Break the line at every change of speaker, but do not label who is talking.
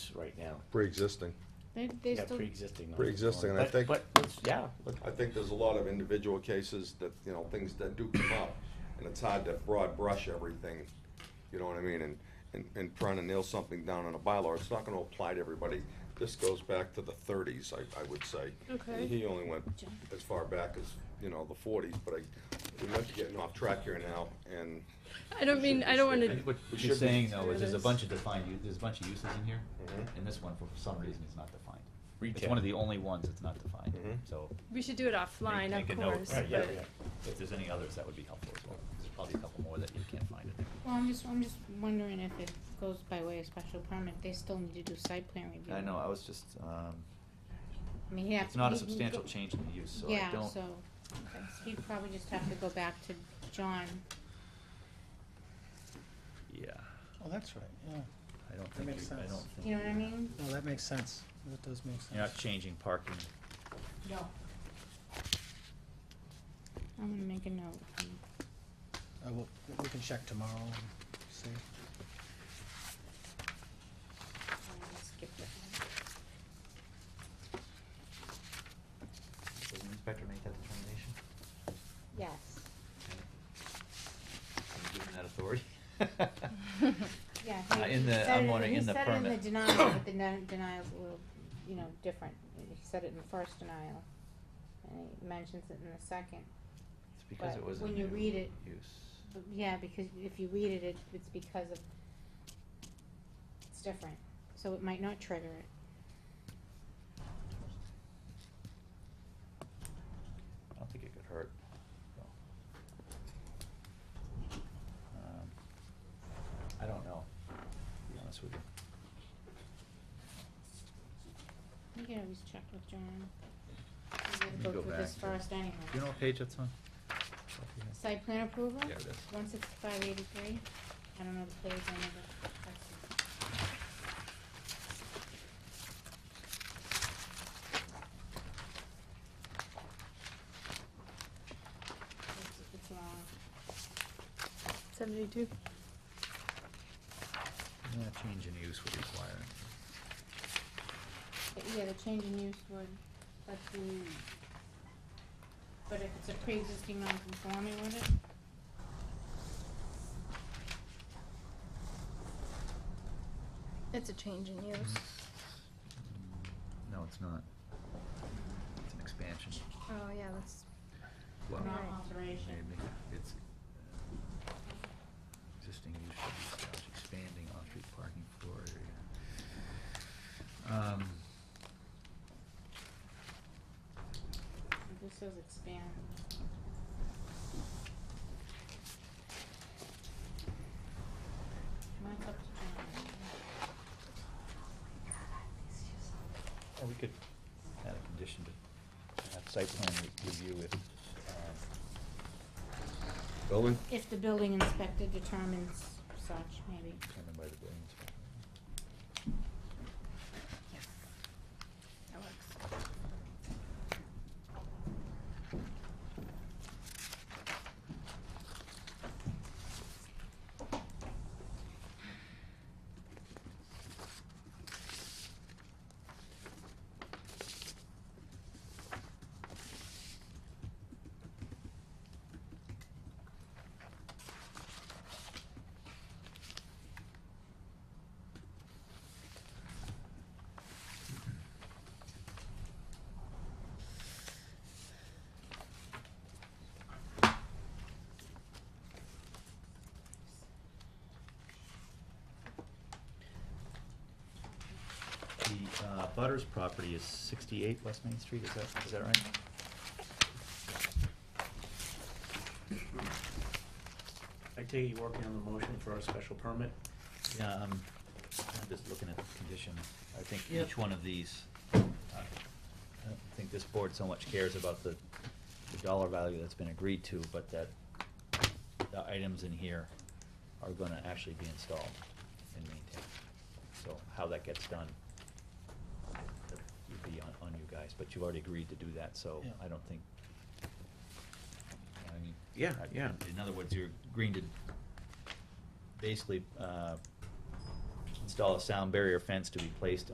is right now.
pre-existing.
They, they
Yeah,
still,
pre-existing. ones.
Pre-existing, and I
But-
think-
But, let's- yeah, let-
I think there's a lot of individual cases that, you know, things that do come up, and it's hard to broad brush everything, you know what I mean, and, and, and trying to nail something down on a bylaw, it's not gonna apply to everybody. This goes back to the thirties, I, I would say.
Okay.
He only went as far back as, you know, the forties, but I, we might be getting off track here now, and
I don't mean, I don't
I
wanna,
think
What
We
what
should
you're
be-
saying though is there's a
Yes.
bunch of defined, u- there's a bunch of uses in here,
Mhm.
and this one for some reason is not defined. It's
Retail.
one of the only ones that's not defined,
Mhm.
so.
we should do it offline,
make-
of
make a note.
course,
right, yeah,
but,
yeah.
If there's any others, that would be helpful as well. There's probably a couple more that you can't find in there.
Well, I'm just, I'm just wondering if it goes by way of special permit, they still need to do site plan review.
I know, I was just, um,
I mean, he'd have.
it's not a
he'd go-
substantial change in the use, so I
Yeah,
don't.
so, he'd probably just have to go back to John.
Yeah,
Oh, that's right, yeah.
I don't
That
think,
makes
you- I
sense.
don't think.
You know what I mean?
No, that makes sense. That does make sense.
You're not changing parking.
No. I'm gonna make a note.
I will, we can check tomorrow and see.
I skipped it.
Does the inspector make that determination?
Yes,
I'm given that authority.
yeah.
Uh,
he-
in
he
the-
said
I'm
it-
wondering in the
He said it in
permit.
the denial, but the den- denial's a little, you know, different, he said it in the first denial, and he mentions it in the second.
It's because
But
it was a
when you
new
read it-
use.
But Yeah, because if you read it, it, it's because of, it's different, so it might not trigger it.
I don't think it could hurt. so. Um, I don't know, to be honest with you.
You can always check with John.
Let me
We're gonna go
go
through this
back.
first anyway.
Do you know what page that's on?
Site plan approval?
Yeah, it is.
One sixty-five eighty-three, I don't know the page, I never, that's. It's, it's long.
seventy-two,
Yeah, change in use would require.
But Yeah, the change in use would, that's the, but if it's a pre-existing non-conforming, would it?
it's a change in use.
Mm. No, it's not. It's an expansion.
Oh, yeah, that's,
Well,
Not
Right.
alteration.
maybe it's, uh, existing use should be established, expanding off-street parking floor area. Um,
It just says expand. Mine's up to John.
Or we could add a condition to have site plan re- review if, um,
building,
If the building inspector determines such, maybe.
determined by the building inspector.
That works.
The, uh, Butters property is sixty-eight West Main Street, is that, is that right?
I take it you're working on the motion for a special permit?
Yeah, um, I'm just looking at the condition, I think
Yep.
each one of these, I I don't think this board so much cares about the, the dollar value that's been agreed to, but that the items in here are gonna actually be installed and maintained. So how that gets done that would be on, on you guys, but you've already agreed to do that, so
Yeah.
I don't think, I mean.
Yeah,
I-
yeah.
In other words, you're agreeing to basically, uh, install a sound barrier fence to be placed